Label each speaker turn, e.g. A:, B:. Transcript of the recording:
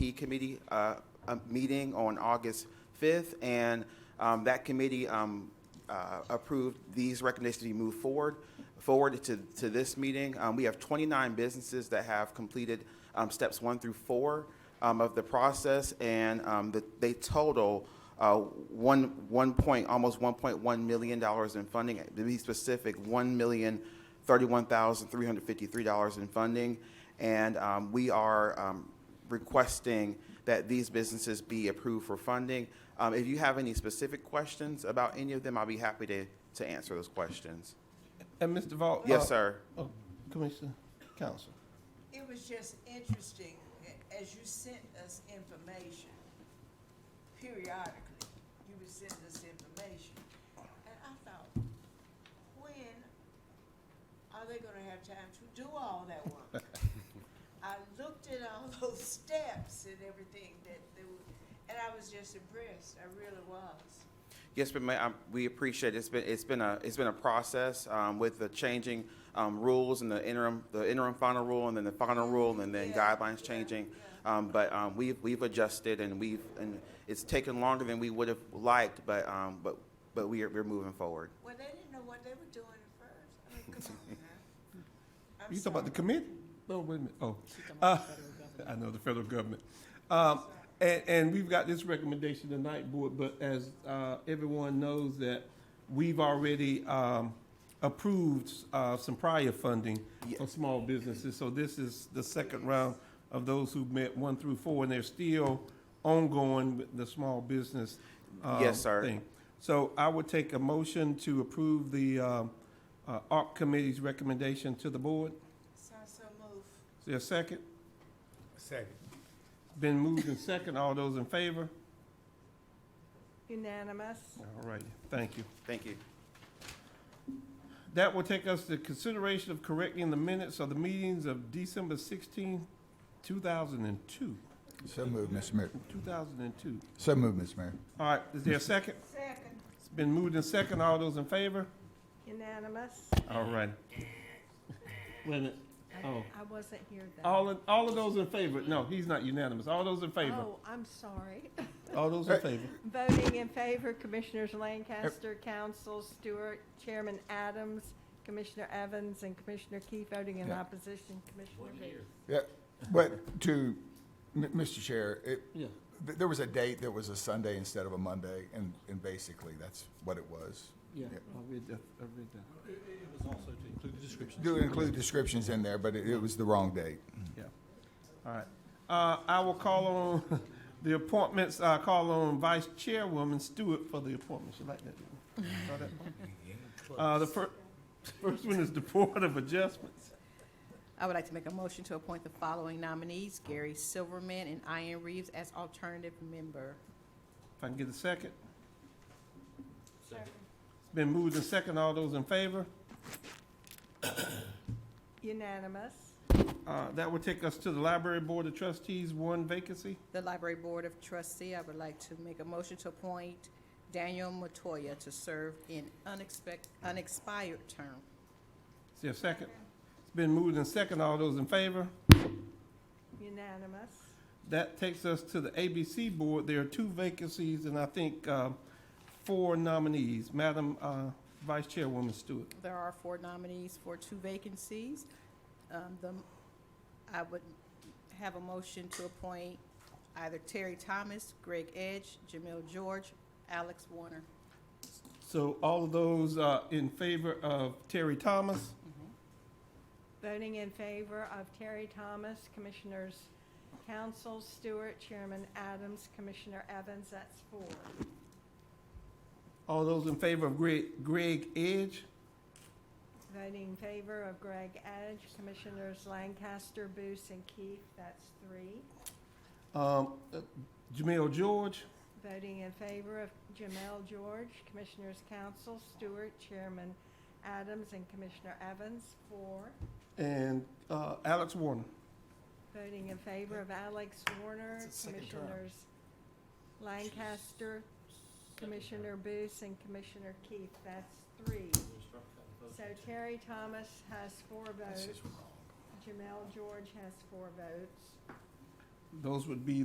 A: E committee, uh, a meeting on August 5th, and, um, that committee, um, uh, approved these recommendations to be moved forward, forward to, to this meeting. Um, we have 29 businesses that have completed, um, steps one through four, um, of the process, and, um, the, they total, uh, one, one point, almost 1.1 million dollars in funding, to be specific, 1 million $31,353 in funding, and um, we are um, requesting that these businesses be approved for funding. Um, If you have any specific questions about any of them, I'll be happy to, to answer those questions.
B: And Mr. Vaughn?
C: Uh,
A: Yes, sir.
B: Oh, Commissioner, Council.
C: It was just interesting, a- as you sent us information, periodically, you would send us information. And I thought, when are they gonna have time to do all that work? I looked at all those steps and everything that they were, and I was just impressed, I really was.
A: Yes, but ma'am, I- we appreciate it. It's been, it's been a, it's been a process um, with the changing um, rules and the interim, the interim final rule and then the final rule and then
C: Yeah,
A: guidelines
C: yeah,
A: changing.
C: yeah.
A: Um, But um, we've, we've adjusted and we've, and it's taken longer than we would have liked, but, um, but, but we are, we're moving forward.
C: Well, they didn't know what they were doing at first, I mean, come on now. I'm
B: You talking about the
C: sorry.
B: committee? No, wait a minute, oh. Uh, I know, the federal government. Um, and, and we've got this recommendation tonight, Board, but as, uh, everyone knows that we've already, um, approved, uh, some prior funding for small businesses, so this is the second round of those who met one through four, and they're still ongoing with the small business, uh,
A: Yes, sir.
B: thing. So I would take a motion to approve the, um, uh, ARC Committee's recommendation to the board.
C: So, so move.
B: Is there a second?
D: Second.
B: Been moved and second. All those in favor?
E: Unanimous.
B: All righty, thank you.
A: Thank you.
B: That will take us to consideration of correcting the minutes of the meetings of December 16, 2002.
D: So moved, Mr. Mayor.
B: 2002.
D: So moved, Mr. Mayor.
B: All right, is there a second?
C: Second.
B: It's been moved and second. All those in favor?
E: Unanimous.
B: All righty. Wait a minute. Oh,
E: I wasn't here then.
B: all, in- all of those in favor? No, he's not unanimous. All those in favor?
E: Oh, I'm sorry.
B: All those in favor?
E: Voting in favor, Commissioners Lancaster, Council, Stewart, Chairman Adams, Commissioner Evans, and Commissioner Key voting in
D: Yeah.
E: opposition, Commissioner Booth.
D: Yeah, but to, M- Mr. Chair, it,
B: Yeah.
D: th- there was a date that was a Sunday instead of a Monday, and, and basically, that's what it was.
B: Yeah,
D: Yeah.
B: I read that, I read that.
D: Do include descriptions in there, but it, it was the wrong date.
B: Yeah. All right. Uh, I will call on the appointments, I call on Vice Chairwoman Stewart for the appointments. You like that? didn't you? Saw that one? Uh, the fir- first one is the Board of Adjustments.
F: I would like to make a motion to appoint the following nominees, Gary Silverman and Ian Reeves, as alternative member.
B: If I can get a second.
C: Second.
B: It's been moved and second. All those in favor?
E: Unanimous.
B: Uh, that will take us to the Library Board of Trustees, one vacancy.
F: The Library Board of Trustee, I would like to make a motion to appoint Daniel Matoya to serve in unexpect, unexpired term.
B: Is there a second? It's been moved and second. All those in favor?
E: Unanimous.
B: That takes us to the ABC Board. There are two vacancies and I think uh, four nominees. Madam uh, Vice Chairwoman Stewart.
F: There are four nominees for two vacancies. Um, the, I would have a motion to appoint either Terry Thomas, Greg Edge, Jamil George, Alex Warner.
B: So all of those uh, in favor of Terry Thomas,
E: Voting in favor of Terry Thomas, Commissioners Council, Stewart, Chairman Adams, Commissioner Evans, that's four.
B: all those in favor of Greg, Greg Edge,
E: Voting in favor of Greg Edge, Commissioners Lancaster, Booth, and Keith, that's three.
B: um, uh, Jamel George,
E: Voting in favor of Jamel George, Commissioners Council, Stewart, Chairman Adams, and Commissioner Evans, four.
B: and uh, Alex Warner.
E: Voting in favor of Alex Warner, Commissioners Lancaster, Commissioner Booth, and Commissioner Keith, that's three. So Terry Thomas has four votes. Jamel George has four votes.
B: Those would be